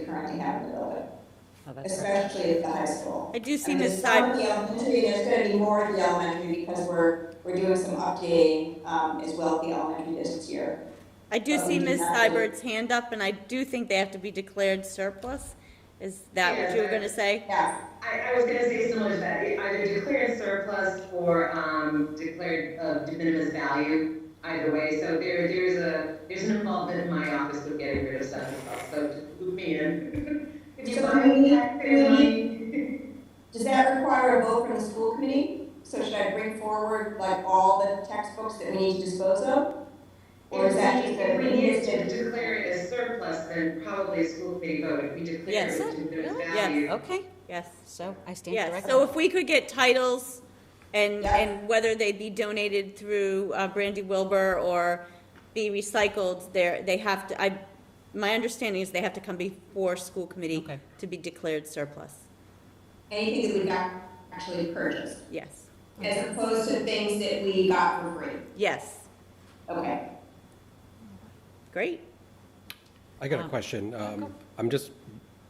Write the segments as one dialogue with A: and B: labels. A: currently have in the building,
B: Oh, that's right.
A: especially at the high school.
C: I do see
A: And there's
C: Ms.
A: some
C: Seib-
A: at the elementary, there's gonna be more at the elementary because we're, we're doing some updating, um, as well at the elementary this year.
C: I do
A: Oh,
C: see
A: we do
C: Ms.
A: not have any.
C: Seibert's hand up, and I do think they have to be declared surplus. Is that what you were gonna say?
A: Yeah,
D: I, I was gonna say similar to that, either declared surplus or, um, declared of de minimis value, either way, so there, there's a, there's an involvement in my office with getting rid of stuff as well, so just loop me in. If you
A: So
D: want
A: we
D: any
A: need-
D: taxpayer
A: we
D: money.
A: does that require a vote from the school committee? So should I bring forward like all the textbooks that we need to dispose of? Or is that just a?
D: If we needed to declare it as surplus, then probably a school committee vote, if we declare
C: Yes.
D: it as de minimis
B: Really?
D: value.
C: Yes,
B: Okay,
C: yes,
B: so I stand
C: yes.
B: corrected.
C: So if we could get titles and,
A: Yeah.
C: and whether they be donated through uh, Brandy Wilbur or be recycled, they're, they have to, I, my understanding is they have to come before school committee
B: Okay.
C: to be declared surplus.
A: Anything that we got actually purchased,
C: Yes,
A: as opposed to things that we got for free,
C: yes,
A: okay?
C: great.
E: I got a
B: Um,
E: question. Um, I'm just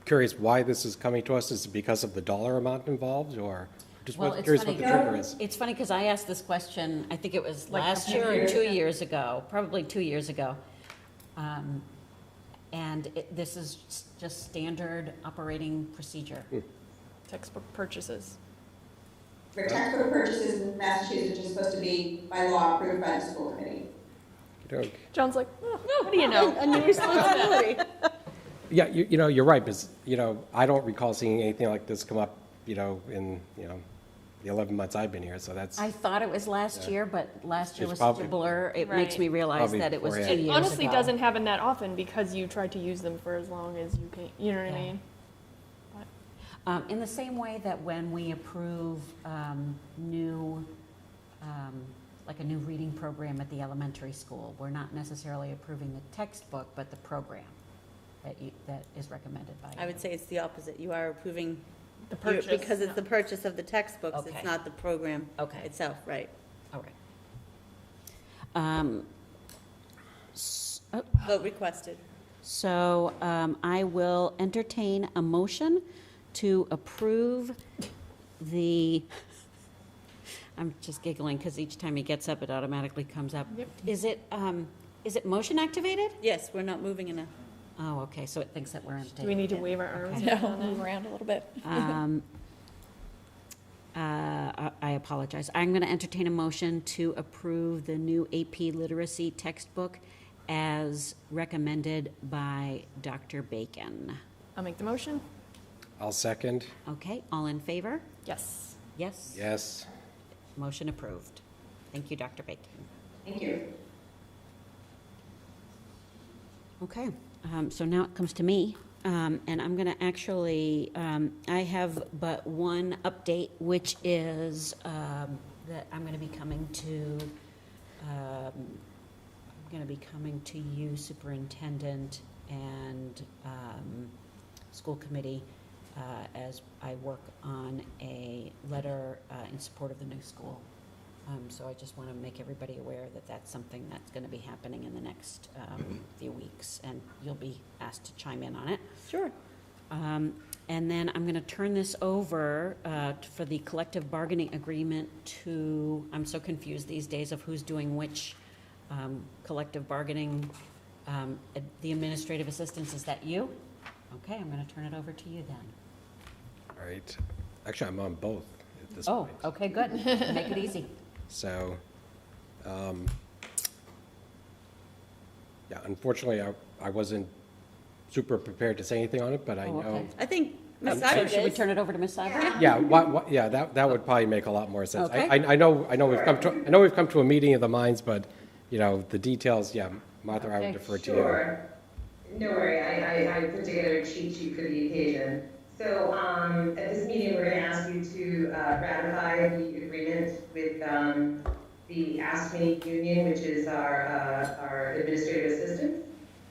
E: curious why this is coming to us. Is it because of the dollar amount involved or just
B: Well,
E: what-
B: it's
E: curious what the
B: funny.
E: trigger is?
B: It's funny because I asked this question, I think it was last year or two years ago, probably two years ago. Um, And it- this is s- just standard operating procedure.
F: textbook purchases.
A: For textbook purchases in Massachusetts are supposed to be by law approved by the school committee.
E: Okey-doke.
F: John's like, oh, what do you know?
C: A new responsibility.
E: Yeah, you, you know, you're right, because, you know, I don't recall seeing anything like this come up, you know, in, you know, the 11 months I've been here, so that's,
B: I thought it was last year, but last year
E: It's
B: was such a
E: probably-
B: blur, it makes
F: Right.
B: me realize
E: Probably
B: that it was two
E: beforehand.
B: years ago.
F: Honestly, doesn't happen that often because you try to use them for as long as you can. You know what I
B: Yeah.
F: mean?
B: Um, In the same way that when we approve um, new, um, like a new reading program at the elementary school, we're not necessarily approving the textbook, but the program that you, that is recommended by.
C: I
B: you.
C: would say it's the opposite. You are approving
F: The
C: You're- Because it's the purchase of the textbooks,
B: Okay.
C: it's not the program
B: Okay,
C: itself, right?
B: all right. Um, s- oh,
C: Vote requested.
B: So um, I will entertain a motion to approve the, I'm just giggling because each time he gets up, it automatically comes up.
F: Yep.
B: Is it, um, is it motion activated?
C: Yes, we're not moving enough.
B: Oh, okay, so it thinks that we're in
F: Do we
B: date.
F: need to wave our arms?
B: Okay.
F: around on that? it?
G: around a little bit.
B: Um, uh, I I apologize. I'm going to entertain a motion to approve the new AP literacy textbook as recommended by Dr. Bacon.
F: I'll make the motion.
E: I'll second.
B: Okay, all in favor?
F: Yes.
B: Yes?
E: Yes.
B: Motion approved. Thank you, Dr. Bacon.
A: Thank you.
B: Okay, um, so now it comes to me, um, and I'm gonna actually, um, I have but one update, which is, um, that I'm gonna be coming to, um, I'm gonna be coming to you, Superintendent, and, um, School Committee, uh, as I work on a letter, uh, in support of the new school. Um, so I just want to make everybody aware that that's something that's going to be happening in the next, um, few weeks, and you'll be asked to chime in on it.
C: Sure.
B: Um, and then I'm going to turn this over, uh, t- for the collective bargaining agreement to, I'm so confused these days of who's doing which, um, collective bargaining, um, ad- the administrative assistance, is that you? Okay, I'm going to turn it over to you then.
E: All right. Actually, I'm on both at this
B: Oh,
E: point.
B: okay, good, make it easy.
E: So, um, yeah, unfortunately, I, I wasn't super prepared to say anything on it, but I
B: Oh,
E: know.
B: okay.
C: I think Ms.
B: So Should we
C: Seibert is.
B: turn it over to Ms. Seibert?
E: Yeah, wha- wha- yeah, that, that would probably make a lot more sense. I,
B: Okay.
E: I I know, I know we've come to, I know we've come to a meeting of the minds, but, you know, the details, yeah, Martha, I
B: Okay.
E: would defer to you.
D: Sure. No worry, I, I, I put together a cheat sheet for the occasion. So, um, at this meeting, we're gonna ask you to, uh, ratify the agreement with, um, the ASME union, which is our, uh, our administrative assistant.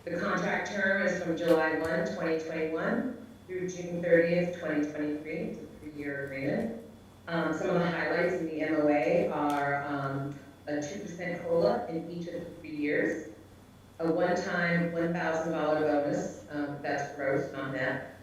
D: The contract term is from July 1, 2021, through June thirtieth, twenty twenty-three, it's a three-year agreement. Um, some of the highlights in the MOA are, um, a two percent COLA in each of the three years a one-time $1,000 bonus, um, that's gross on that,